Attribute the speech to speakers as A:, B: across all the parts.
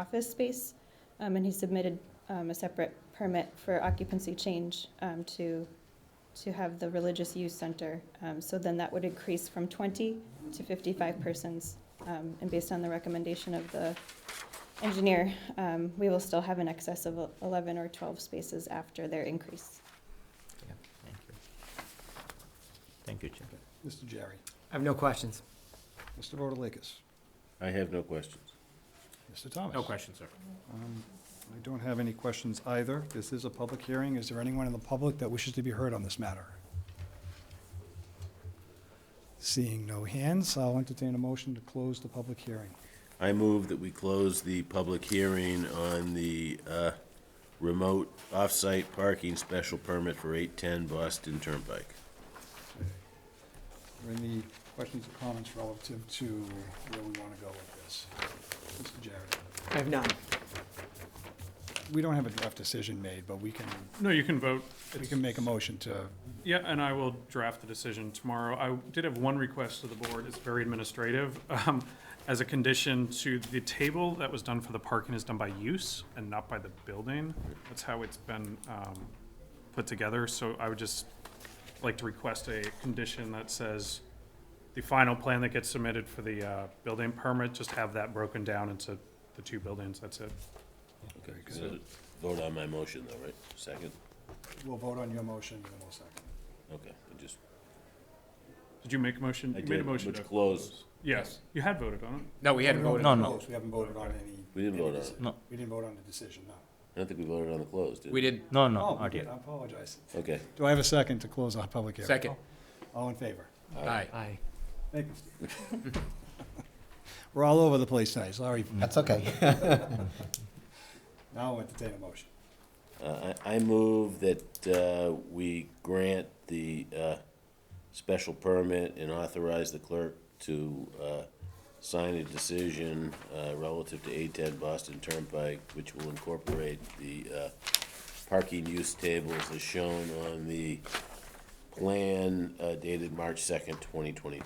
A: office space, um, and he submitted um, a separate permit for occupancy change um, to, to have the religious youth center. Um, So then that would increase from 20 to 55 persons. Um, And based on the recommendation of the engineer, um, we will still have an excess of 11 or 12 spaces after their increase.
B: Yeah, thank you. Thank you, Chair.
C: Mr. Jerry.
D: I have no questions.
C: Mr. Rotalakis.
E: I have no questions.
C: Mr. Thomas.
F: No questions, sir.
C: Um, I don't have any questions either. This is a public hearing. Is there anyone in the public that wishes to be heard on this matter? Seeing no hands, I'll entertain a motion to close the public hearing.
E: I move that we close the public hearing on the uh, remote off-site parking special permit for 810 Boston Turnpike.
C: Are there any questions or comments relative to where we want to go with this? Mr. Jerry.
D: I have none.
C: We don't have a draft decision made, but we can,
F: No, you can vote.
C: we can make a motion to,
F: Yeah, and I will draft the decision tomorrow. I did have one request to the board. It's very administrative. Um, As a condition to the table that was done for the parking is done by use and not by the building. That's how it's been um, put together. So I would just like to request a condition that says the final plan that gets submitted for the uh, building permit, just have that broken down into the two buildings. That's it.
E: Okay, so Vote on my motion though, right? Second?
C: we'll vote on your motion in a second.
E: Okay, I just,
F: Did you make a motion?
E: I
F: You made a
E: did,
F: motion
E: which
F: to-
E: close.
F: Yes, you had voted on it.
D: No, we hadn't voted.
B: No,
C: Of
B: no.
C: course, We haven't voted on any.
E: We didn't
C: any
E: vote on it.
C: deci-
B: No.
C: We didn't vote on the decision, no.
E: I don't think we voted on the close, did we?
D: We did.
B: No, no,
C: Oh, we
B: not
C: did,
B: yet.
C: I apologize.
E: Okay.
C: Do I have a second to close our public hearing? Oh,
D: Second.
C: All in favor?
D: Aye.
B: Aye.
C: Thank you, Steve. We're all over the place tonight, sorry.
D: Mm-hmm.
G: That's okay.
C: Now I'll entertain a motion.
E: Uh, I I move that uh, we grant the uh, special permit and authorize the clerk to uh, sign a decision uh, relative to 810 Boston Turnpike, which will incorporate the uh, parking use tables as shown on the plan uh, dated March 2nd, 2022.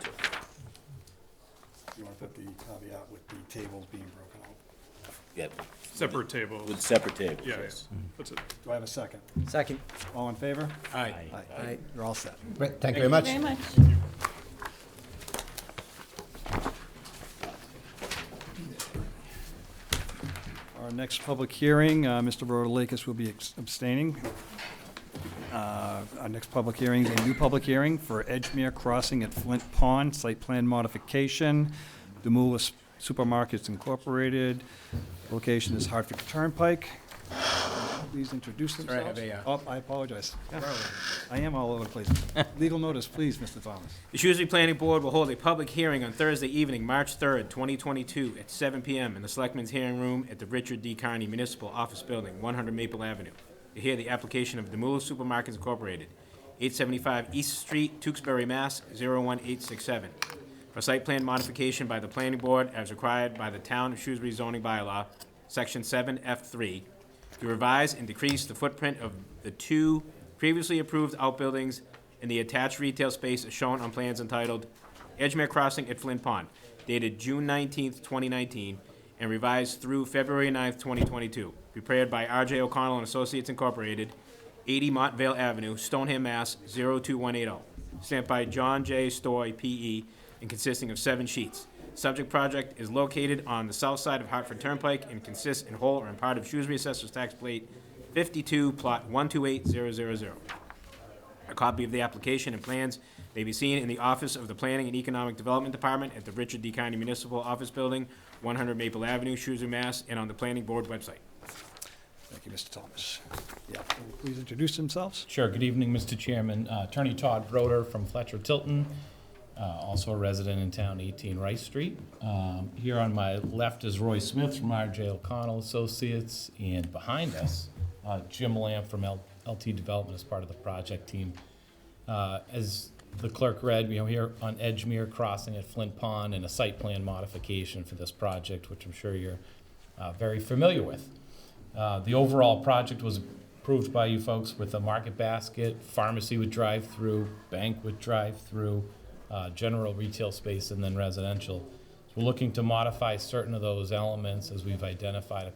C: You want to put the caveat with the tables being broken out?
E: Yep,
F: Separate tables.
E: with separate tables,
F: Yeah, yeah.
E: yes.
F: That's it.
C: Do I have a second?
D: Second.
C: All in favor?
D: Aye. Aye.
C: You're all set.
G: Great, Thank you very much.
A: Very much.
C: Our next public hearing, uh, Mr. Rotalakis will be ex- abstaining. Uh, Our next public hearing is a new public hearing for Edgemere Crossing at Flint Pond, site plan modification. Demoulas Supermarkets Incorporated, location is Hartford Turnpike. Please introduce
D: Sorry, I have
C: themselves.
D: a, uh,
C: Oh, I apologize. I am all over the place. Legal notice, please, Mr. Thomas.
D: The Shrewsbury Planning Board will hold a public hearing on Thursday evening, March 3rd, 2022, at 7 PM in the Selectmen's Hearing Room at the Richard D. Carney Municipal Office Building, 100 Maple Avenue, to hear the application of Demula Supermarkets Incorporated, 875 East Street, Tewksbury, Mass. 01867, for site plan modification by the Planning Board as required by the Town of Shrewsbury zoning bylaw, Section 7F3, to revise and decrease the footprint of the two previously approved outbuildings and the attached retail space as shown on plans entitled Edgemere Crossing at Flint Pond, dated June nineteenth, twenty nineteen, and revised through February 9th, twenty twenty-two, prepared by RJ O'Connell and Associates Incorporated, eighty Montvale Avenue, Stoneham, Mass. 02180, oh. stamped by John J. Stoy, P.E., and consisting of seven sheets. Subject project is located on the south side of Hartford Turnpike and consists in whole or in part of Shrewsbury Assessor's Tax Plate 52, Plot 128000. A copy of the application and plans may be seen in the office of the Planning and Economic Development Department at the Richard D. County Municipal Office Building, 100 Maple Avenue, Shrewsbury, Mass., and on the Planning Board website.
C: Thank you, Mr. Thomas. Yeah, please introduce themselves.
H: Sure, good evening, Mr. Chairman. Uh, Attorney Todd Broder from Fletcher Tilton, uh, also a resident in town, 18 Rice Street. Um, Here on my left is Roy Smith from RJ O'Connell Associates, and behind us, uh, Jim Lamb from L- LT Development as part of the project team. Uh, As the clerk read, you know, here on Edgemere Crossing at Flint Pond and a site plan modification for this project, which I'm sure you're uh, very familiar with. Uh, The overall project was approved by you folks with a market basket, pharmacy with drive-through, bank with drive-through, uh, general retail space, and then residential. It's We're looking to modify certain of those elements as we've identified a